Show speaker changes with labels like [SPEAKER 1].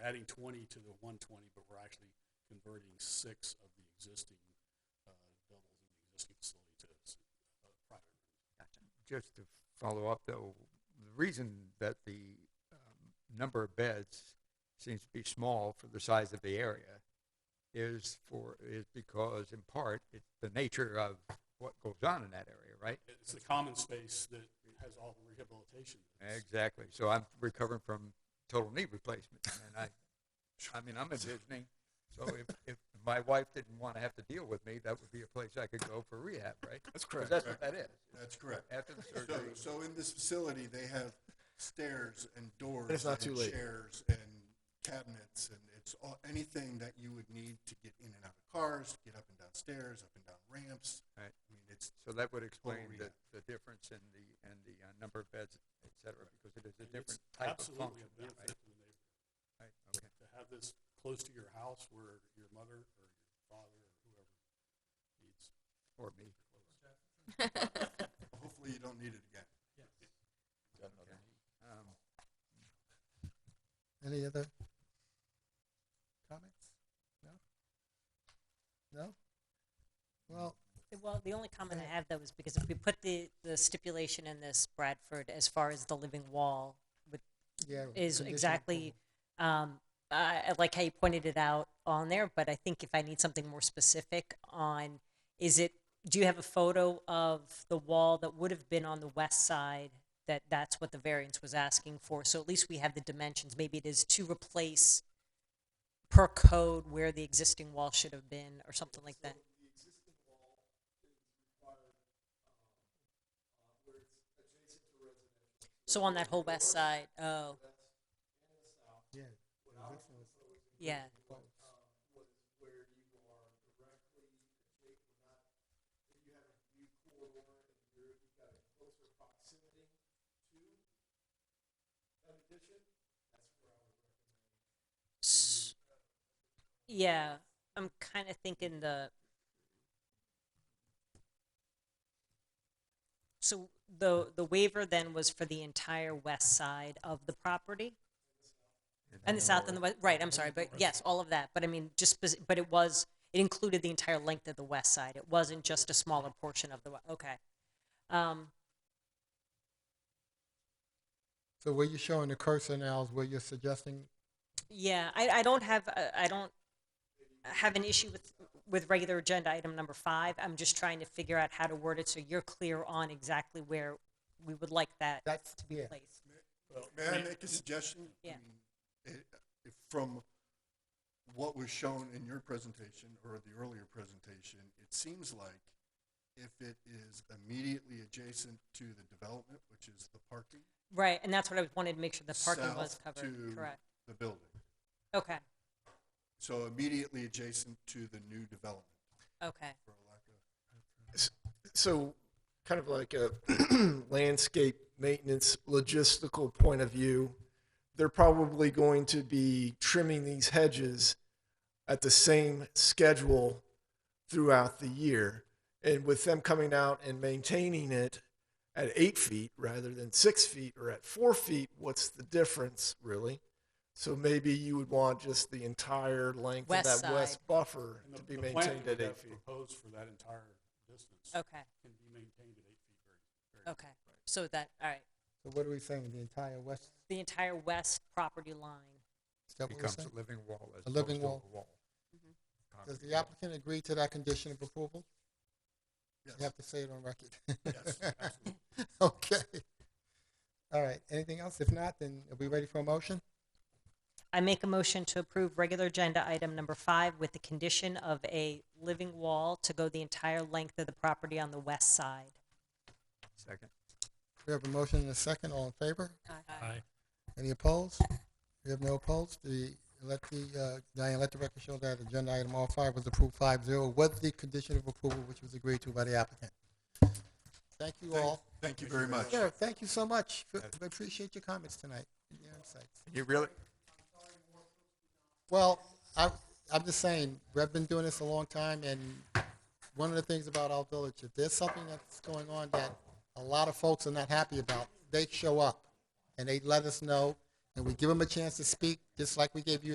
[SPEAKER 1] adding twenty to the one twenty, but we're actually converting six of the existing, uh, doubles in the existing facility to, s- uh, private rooms.
[SPEAKER 2] just to follow up though, the reason that the um, number of beds seems to be small for the size of the area is for, is because in part, it's the nature of what goes on in that area, right?
[SPEAKER 1] It's the common space that has all the rehabilitation. that's-
[SPEAKER 2] Exactly. So I'm recovering from total knee replacement and I, I mean, I'm envisioning, so if, if my wife didn't want to have to deal with me, that would be a place I could go for rehab, right?
[SPEAKER 3] That's
[SPEAKER 2] 'Cause
[SPEAKER 3] correct.
[SPEAKER 2] that's what that is.
[SPEAKER 4] That's correct.
[SPEAKER 2] After the
[SPEAKER 4] So,
[SPEAKER 2] surgery,
[SPEAKER 4] so in this facility, they have stairs and doors.
[SPEAKER 3] it's not too
[SPEAKER 4] and
[SPEAKER 3] late.
[SPEAKER 4] Chairs and cabinets and it's all, anything that you would need to get in and out of cars, get up and down stairs, up and down ramps.
[SPEAKER 2] Right.
[SPEAKER 4] I mean, it's,
[SPEAKER 2] So that would explain the,
[SPEAKER 4] rehab.
[SPEAKER 2] the difference in the, in the uh, number of beds, et cetera, because it is a
[SPEAKER 1] and it's
[SPEAKER 2] different type of
[SPEAKER 1] Absolutely a
[SPEAKER 2] function. now, right?
[SPEAKER 1] benefit to the neighborhood.
[SPEAKER 2] Right, okay.
[SPEAKER 1] to have this close to your house where your mother or your father or whoever needs
[SPEAKER 2] Or me.
[SPEAKER 4] hopefully you don't need it again.
[SPEAKER 2] Um,
[SPEAKER 5] Any other comments? No? No? Well,
[SPEAKER 6] Well, the only comment I have though is because if we put the, the stipulation in this Bradford as far as the living wall
[SPEAKER 5] yeah.
[SPEAKER 6] is
[SPEAKER 5] conditional
[SPEAKER 6] exactly, um, I, I like how you pointed it out on there, but I think if I need something more specific on, is it, do you have a photo of the wall that would have been on the west side? That that's what the variance was asking for, so at least we have the dimensions, maybe it is to replace per code where the existing wall should have been, or something like that. So on that whole west side, oh,
[SPEAKER 5] approval. Yeah. conditional approval.
[SPEAKER 6] yeah. S- Yeah, I'm kind of thinking the. So the, the waiver then was for the entire west side of the property? And the south and the west, right, I'm sorry, but yes, all of that, but I mean, just, spec- but it was, it included the entire length of the west side, it wasn't just a smaller portion of the, we- okay. Um,
[SPEAKER 5] So where you're showing the cursor now is where you're suggesting,
[SPEAKER 6] Yeah, I, I don't have, a- I don't have an issue with, with regular agenda item number five. I'm just trying to figure out how to word it so you're clear on exactly where we would like that
[SPEAKER 5] that's,
[SPEAKER 6] to be
[SPEAKER 5] yeah.
[SPEAKER 6] placed.
[SPEAKER 4] May I make a suggestion? I
[SPEAKER 6] Yeah.
[SPEAKER 4] mean, it- if- From what was shown in your presentation or the earlier presentation, it seems like if it is immediately adjacent to the development, which is the parking.
[SPEAKER 6] Right, and that's what I wanted to make sure the parking was
[SPEAKER 4] south
[SPEAKER 6] covered,
[SPEAKER 4] to
[SPEAKER 6] correct?
[SPEAKER 4] The building.
[SPEAKER 6] Okay,
[SPEAKER 4] So immediately adjacent to the new development,
[SPEAKER 6] okay.
[SPEAKER 4] for lack of
[SPEAKER 3] So, kind of like a landscape maintenance logistical point of view, they're probably going to be trimming these hedges at the same schedule throughout the year. And with them coming out and maintaining it at eight feet rather than six feet or at four feet, what's the difference really? So maybe you would want just the entire length
[SPEAKER 6] West
[SPEAKER 3] of that west
[SPEAKER 6] side.
[SPEAKER 3] buffer
[SPEAKER 1] And the-
[SPEAKER 3] to be
[SPEAKER 1] the plan
[SPEAKER 3] maintained
[SPEAKER 1] that
[SPEAKER 3] at
[SPEAKER 1] we
[SPEAKER 3] eight
[SPEAKER 1] have
[SPEAKER 3] feet.
[SPEAKER 1] Proposed for that entire distance.
[SPEAKER 6] Okay,
[SPEAKER 1] Can be maintained at eight feet very, very.
[SPEAKER 6] Oh. okay. So that, all right,
[SPEAKER 5] So what are we saying, the entire west,
[SPEAKER 6] the entire west property line.
[SPEAKER 5] is that what we're
[SPEAKER 2] Becomes
[SPEAKER 5] saying?
[SPEAKER 2] a living wall as
[SPEAKER 5] A living
[SPEAKER 2] opposed to a
[SPEAKER 5] wall.
[SPEAKER 2] wall.
[SPEAKER 6] Mm-hmm.
[SPEAKER 5] Does
[SPEAKER 2] Concrete
[SPEAKER 5] the
[SPEAKER 2] wall.
[SPEAKER 5] applicant agree to that condition of approval?
[SPEAKER 4] Yes.
[SPEAKER 5] You have to say it on record.
[SPEAKER 4] Yes, absolutely.
[SPEAKER 5] Okay. All right, anything else? If not, then are we ready for a motion?
[SPEAKER 6] I make a motion to approve regular agenda item number five with the condition of a living wall to go the entire length of the property on the west side.
[SPEAKER 2] Second.
[SPEAKER 5] We have a motion and a second, all in favor?
[SPEAKER 1] Aye.
[SPEAKER 5] Any opposed? We have no opposed. The, let the, uh, Diane, let the record show that agenda item R five was approved five zero with the condition of approval which was agreed to by the applicant. Thank you all.
[SPEAKER 4] Thank you very much.
[SPEAKER 5] Yeah, thank you so much. We appreciate your comments tonight and your insights.
[SPEAKER 2] You really,
[SPEAKER 5] Well, I, I'm just saying, we've been doing this a long time, and one of the things about our village, if there's something that's going on that a lot of folks are not happy about, they show up, and they let us know, and we give them a chance to speak, just like we gave you